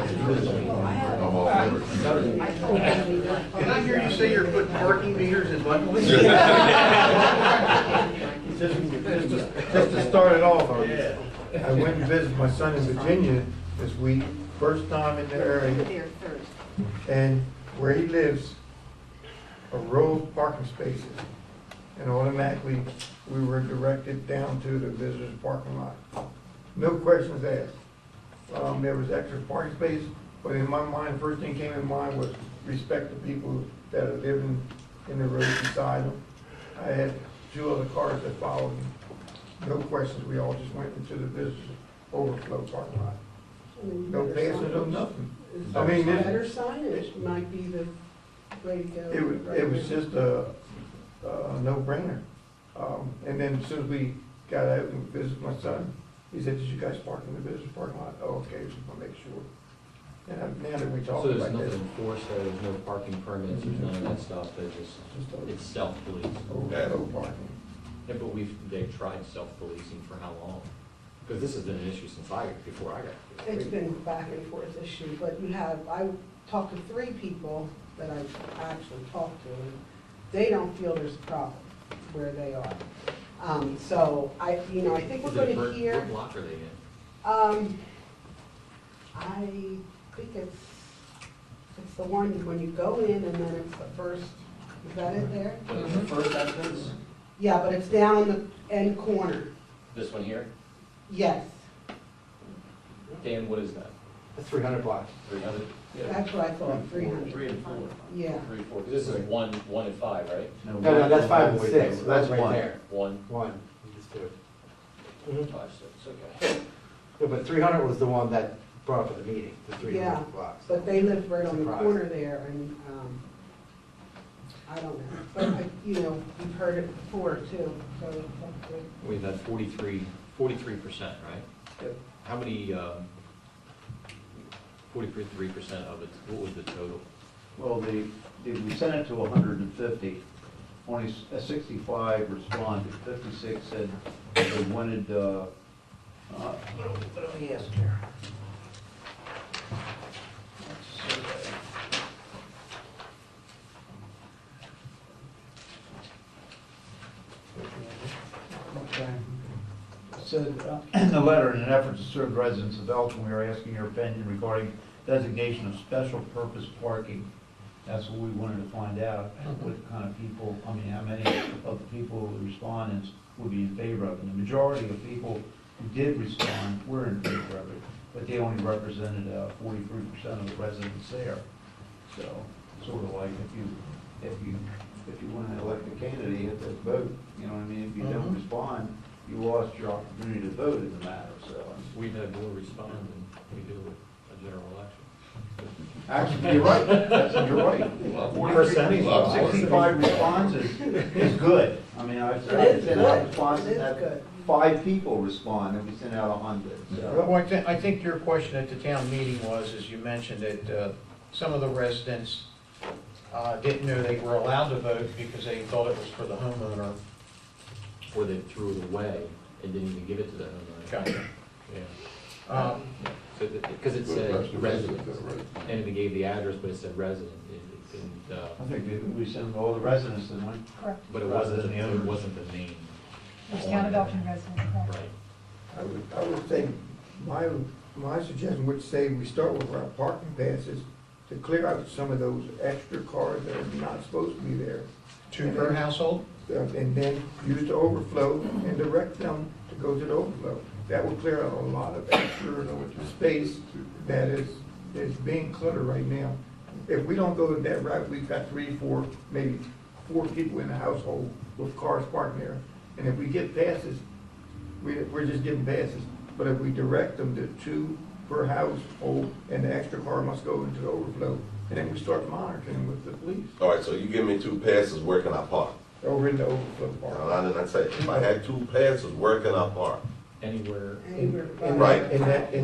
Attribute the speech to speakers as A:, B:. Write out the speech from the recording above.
A: I'm all for it.
B: Did I hear you say you're putting parking meters in Buttonwood?
C: Just to- just to start it off, I I went and visited my son in Virginia this week, first time in the area,
D: There first.
C: and where he lives, a row of parking spaces. And automatically, we were directed down to the visitor's parking lot. No questions asked. Um, there was extra parking space, but in my mind, first thing came in mind was respect the people that are living in the road beside them. I had two other cars that followed me. No questions, we all just went into the visitor overflow parking lot. No passes, no nothing. I mean, it-
E: Better signage might be the way to go.
C: It was, it was just a, a no-brainer. Um, and then as soon as we got out and visited my son, he said, did you guys park in the business parking lot? Oh, okay, just wanna make sure. And I'm- now that we talked
F: So there's
C: about
F: nothing
C: this,
F: enforced, there, there's no parking permits, there's none of that stuff, there's just, it's self-policing.
C: overflow parking.
F: Yeah, but we've, they've tried self-policing for how long? Because this has been an issue since I, before I got here.
E: It's been back and forth issue, but you have, I talked to three people that I actually talked to, and they don't feel there's a problem where they are. Um, so I, you know, I think we're
F: Is it
E: gonna
F: Bert-
E: hear,
F: What block are they in?
E: um, I think it's, it's the one when you go in and then it's the first, is that it there?
G: But it's the first entrance,
E: Yeah, but it's down in the end corner,
G: this one here,
E: yes,
G: Dan, what is that?
H: That's three hundred block.
G: Three hundred?
E: that's what I thought, three hundred,
B: Three and four.
E: yeah.
G: Three, four, 'cause this is one, one and five, right?
H: No, no, that's five and six, so that's right
G: one.
H: there.
G: One,
H: One, and just two.
E: Mm-hmm.
G: five, six, okay.
H: No, But three hundred was the one that brought up at the meeting, the three
E: Yeah,
H: hundred blocks.
E: but they live right on the
H: Surprise.
E: corner there, and, um, I don't know, but, I- you know, we've heard it before too, so it's up to-
F: We've had 43 percent, right?
C: Yep.
F: How many, um, forty-three percent of it, what was the total?
B: Well, the, the- we sent it to hundred and fifty, only s- uh, sixty-five responded, fifty-six said they wanted, uh, uh, what do we ask here? Let's see. Said, uh, in the letter, in an effort to serve residents of Elton, we are asking your opinion regarding designation of special purpose parking. That's what we wanted to find out, what kind of people, I mean, how many of the people, the respondents would be in favor of it. And the majority of people who did respond were in favor of it, but they only represented uh, forty-three percent of the residents there. So, sort of like if you, if you, if you want to elect a candidate, you have to vote, you know what I mean? If you don't respond, you lost your opportunity to vote in the matter, so.
F: We've had more respond than we do with a general election.
C: Actually, you're right, That's- you're right.
F: Percentage.
C: Sixty-five
B: responses is good. I mean, I've I've sent out responses,
E: It is good.
B: had five people respond, and we sent out a hundred,
I: Well,
B: so.
I: I think, I think your question at the town meeting was, as you mentioned, that uh, some of the residents uh, didn't know they were allowed to vote because they thought it was for the homeowner.
F: Or they threw it away and didn't even give it to the homeowner.
I: Gotcha.
F: Yeah.
I: Um,
F: So, because it
A: But that's the
F: said
A: resident,
F: resident,
A: right?
F: and it gave the address, but it said resident, It- it didn't, uh,
B: I think we- we sent all the residents in one.
F: but it
B: Rather
F: wasn't,
B: than the
F: it
B: owners.
F: wasn't the name.
J: There's town of Elton residents. okay.
F: Right.
C: I would, I would say, my, my suggestion would say we start with our parking passes to clear out some of those extra cars that are not supposed to be there.
I: Two per household?
C: uh, and then use the overflow and direct them to go to the overflow. That will clear out a lot of extra space that is, is being cluttered right now. If we don't go that route, we've got three, four, maybe four people in the household with cars parked there. And if we get passes, we, we're just getting passes. But if we direct them to two per household and the extra car must go into the overflow, and then we start monitoring with the police
A: All right, so you give me two passes, where can I park?
C: over in the overflow
A: You
C: part.
A: know, I didn't say, if I had two passes, where can I park?
F: Anywhere
E: anywhere.
C: And-
A: Right.
C: And that,